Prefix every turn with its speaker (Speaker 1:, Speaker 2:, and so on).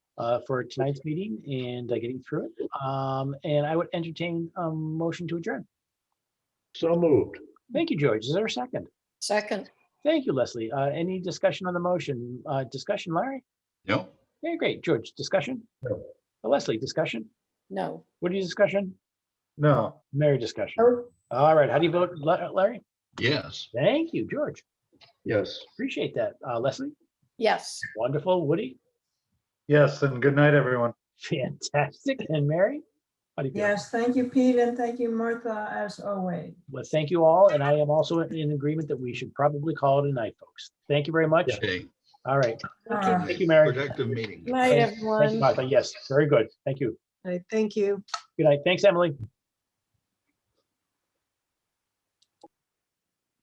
Speaker 1: uh, for tonight's meeting and uh, getting through it. Um, And I would entertain a motion to adjourn.
Speaker 2: So moved.
Speaker 1: Thank you, George. Is there a second?
Speaker 3: Second,
Speaker 1: Thank you, Leslie. Uh, Any discussion on the motion? Uh, Discussion, Larry?
Speaker 4: No,
Speaker 1: Yeah, great. George, discussion? Uh,
Speaker 2: No.
Speaker 1: Leslie, discussion?
Speaker 3: no.
Speaker 1: What Woody, discussion?
Speaker 2: No.
Speaker 1: Mary, discussion? All right, how do you vote, La- Larry?
Speaker 4: yes.
Speaker 1: Thank you, George.
Speaker 2: Yes.
Speaker 1: Appreciate that. Uh, Leslie?
Speaker 3: Yes.
Speaker 1: Wonderful. Woody?
Speaker 2: Yes, and good night, everyone.
Speaker 1: Fantastic. And Mary? How do you feel?
Speaker 5: Yes, thank you, Pete, and thank you, Martha, as always.
Speaker 1: Well, thank you all. And I am also in- in agreement that we should probably call it a night, folks. Thank you very much.
Speaker 4: Okay.
Speaker 1: All right.
Speaker 5: Uh,
Speaker 1: Thank you, Mary.
Speaker 4: Productive meeting.
Speaker 3: Night,
Speaker 1: Thank you,
Speaker 3: everyone.
Speaker 1: Martha. Yes, very good. Thank you.
Speaker 6: All right, Thank you.
Speaker 1: Good night. Thanks, Emily.